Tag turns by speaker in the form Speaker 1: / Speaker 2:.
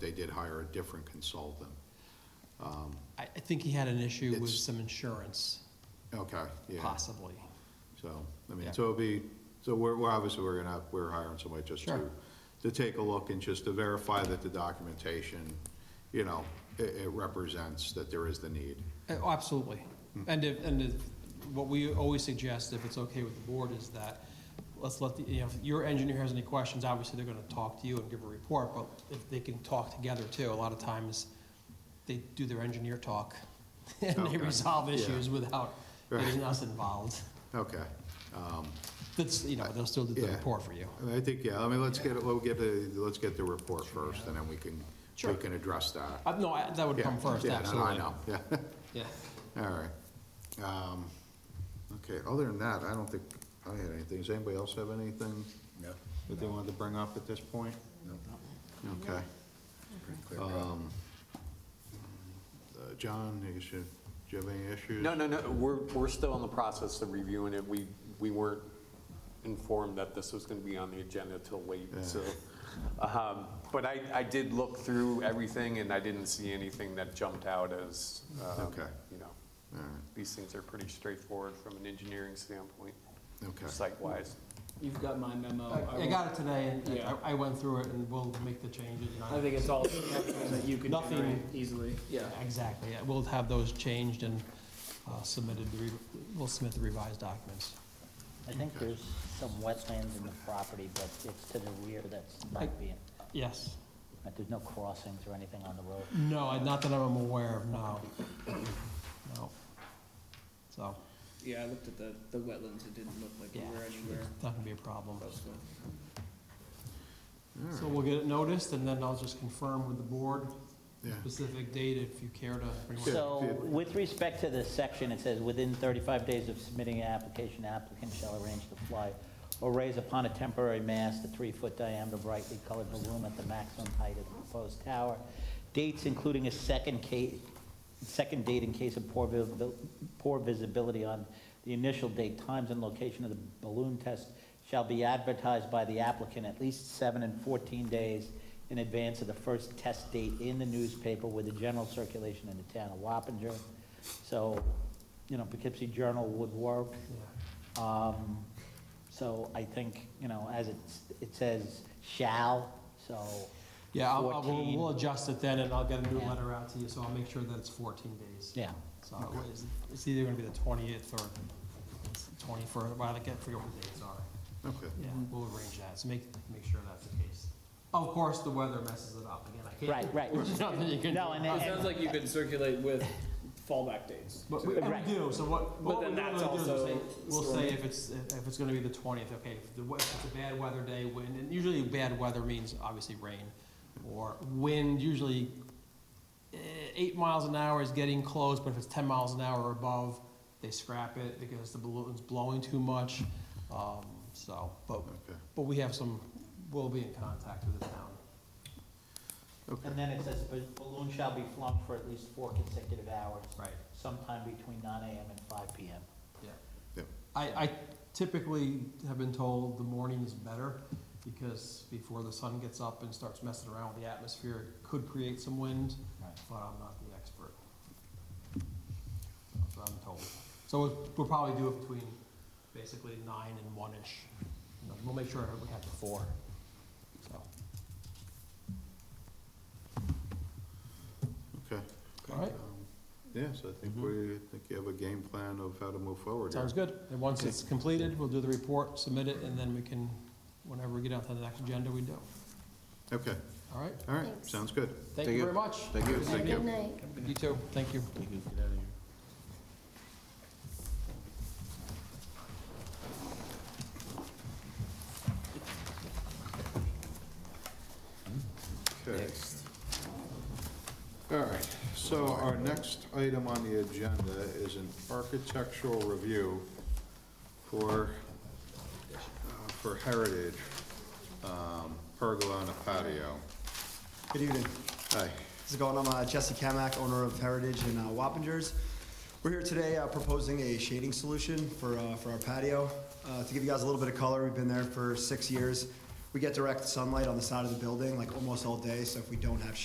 Speaker 1: they did hire a different consultant.
Speaker 2: I, I think he had an issue with
Speaker 1: It's-
Speaker 2: some insurance,
Speaker 1: Okay, yeah,
Speaker 2: possibly.
Speaker 1: so, I mean,
Speaker 2: Yeah.
Speaker 1: so it'll be, so we're, we're obviously, we're gonna, we're hiring somebody just to,
Speaker 2: Sure.
Speaker 1: to take a look and just to verify that the documentation, you know, it, it represents that there is the need.
Speaker 2: Uh, Absolutely.
Speaker 1: Hmm.
Speaker 2: And if, and if, what we always suggest, if it's okay with the board, is that, let's let the, you know, if your engineer has any questions, obviously they're gonna talk to you and give a report, but if they can talk together too, a lot of times, they do their engineer talk, and
Speaker 1: Okay.
Speaker 2: they resolve
Speaker 1: Yeah.
Speaker 2: issues without getting us involved.
Speaker 1: Okay,
Speaker 2: That's, you know, they'll still do the
Speaker 1: Yeah.
Speaker 2: report for you.
Speaker 1: I mean, I think, yeah, I mean, let's get, it- we'll get, the let's get the report first, and then we can, we
Speaker 2: Sure.
Speaker 1: can address that.
Speaker 2: Uh, no, I- that would
Speaker 1: Yeah,
Speaker 2: come first,
Speaker 1: yeah, no,
Speaker 2: absolutely.
Speaker 1: I know, yeah.
Speaker 2: Yeah.
Speaker 1: All right. Um, Okay, other than that, I don't think I had anything. Does anybody else have anything
Speaker 3: No.
Speaker 1: that they wanted to bring up at this point?
Speaker 3: No.
Speaker 1: Okay.
Speaker 3: Pretty clear cut.
Speaker 1: Uh, John, you should, do you have any issues?
Speaker 4: No, no, no, we're, we're still in the process of reviewing it. We, we weren't informed that this was going to be on the agenda till late, so. um, But I, I did look through everything and I didn't see anything that jumped out as, um,
Speaker 1: Okay.
Speaker 4: you know,
Speaker 1: All right,
Speaker 4: these things are pretty straightforward from an engineering standpoint,
Speaker 1: okay.
Speaker 4: site-wise.
Speaker 5: You've got my memo.
Speaker 2: I I got it today, and and
Speaker 5: Oh, Yeah.
Speaker 2: I I went through it, and we'll make the changes. and
Speaker 5: I think it's all that you can
Speaker 2: Nothing-
Speaker 5: generate easily. Yeah.
Speaker 2: Exactly, yeah, we'll have those changed and uh, submitted, the re- we'll submit the revised documents.
Speaker 6: I think there's some wetlands in the property, but it's to the rear that's
Speaker 2: Like-
Speaker 6: not being,
Speaker 2: Yes,
Speaker 6: like, there's no crossings or anything on the road.
Speaker 2: no, I- not that I'm aware of, no. No. So,
Speaker 5: Yeah, I looked at the, the wetlands, it didn't look like
Speaker 2: yeah,
Speaker 5: we were
Speaker 2: it's
Speaker 5: anywhere
Speaker 2: not gonna be a problem.
Speaker 5: close to. it.
Speaker 1: All
Speaker 2: So
Speaker 1: right,
Speaker 2: we'll get it noticed, and then I'll just confirm with the board
Speaker 1: yeah.
Speaker 2: specific date if you care to. bring one.
Speaker 6: So with respect to this section, it says, "Within 35 days of submitting an application, applicant shall arrange to fly or raise upon a temporary mast a three-foot diameter brightly colored balloon at the maximum height of the proposed tower. Dates including a second case, second date in case of poor visibil- poor visibility on the initial date, times and location of the balloon test shall be advertised by the applicant at least seven and 14 days in advance of the first test date in the newspaper with a general circulation in the town of Wappinger. So, you know, Poughkeepsie Journal would work. Um, So I think, you know, as it, it says shall, so.
Speaker 2: Yeah, I'll- I'll- we'll
Speaker 6: 14.
Speaker 2: we'll adjust it then, and I'll get a new
Speaker 6: Yeah.
Speaker 2: letter out to you, so I'll make sure that it's 14 days.
Speaker 6: Yeah,
Speaker 2: So it's- it's either gonna be the 28th or 21st, well, I can't figure what the dates are.
Speaker 1: Okay,
Speaker 2: Yeah, we'll arrange that, so make, make sure that's the case. Of course, the weather messes it up, again, I can't.
Speaker 6: right, right.
Speaker 2: There's nothing you can do.
Speaker 6: No, and
Speaker 5: It
Speaker 6: then-
Speaker 5: sounds like you could circulate with fallback dates.
Speaker 2: But we, and
Speaker 6: Right.
Speaker 2: we do, so what, what we
Speaker 5: then
Speaker 2: normally do
Speaker 5: that's
Speaker 2: is we'll say,
Speaker 5: also
Speaker 2: we'll
Speaker 5: sort
Speaker 2: say
Speaker 5: of-
Speaker 2: if it's, if it's gonna be the twentieth, okay, if the, we- if it's a bad weather day, wind, and usually bad weather means obviously rain, or wind, usually eh, eight miles an hour is getting close, but if it's ten miles an hour or above, they scrap it because the balloon's blowing too much, um, so, but,
Speaker 1: okay,
Speaker 2: but we have some, we'll be in contact with the town.
Speaker 6: And
Speaker 1: okay.
Speaker 6: then it says "Bal- balloon shall be flung for at least four consecutive hours.
Speaker 2: Right.
Speaker 6: Sometime between nine AM and five PM.
Speaker 2: Yeah.
Speaker 1: Yep.
Speaker 2: I, I typically have been told the morning is better because before the sun gets up and starts messing around with the atmosphere, it could create some wind, but I'm not the expert. That's what I'm told. So we'll- we'll probably do it between basically nine and one-ish. You know, We'll make sure we have the four, so.
Speaker 1: Okay.
Speaker 2: All right,
Speaker 1: Um, Yes, I think we, I think you have a game plan of how to move forward here.
Speaker 2: sounds good. And once it's completed, we'll do the report, submit it, and then we can, whenever we get out to the next agenda, we do.
Speaker 1: Okay,
Speaker 2: All right,
Speaker 1: all right,
Speaker 7: Thanks.
Speaker 1: sounds good.
Speaker 2: thank you very much.
Speaker 1: Thank you, thank you.
Speaker 7: Good night.
Speaker 2: You too, thank you.
Speaker 1: Okay. All right, so our next item on the agenda is an architectural review for, uh, for Heritage, um, pergola on a patio.
Speaker 8: Good evening.
Speaker 1: Hi,
Speaker 8: How's it going? I'm uh, Jesse Kamak, owner of Heritage in uh, Wappingers. We're here today uh, proposing a shading solution for, uh, for our patio. Uh, To give you guys a little bit of color, we've been there for six years. We get direct sunlight on the side of the building, like almost all day, so if we don't have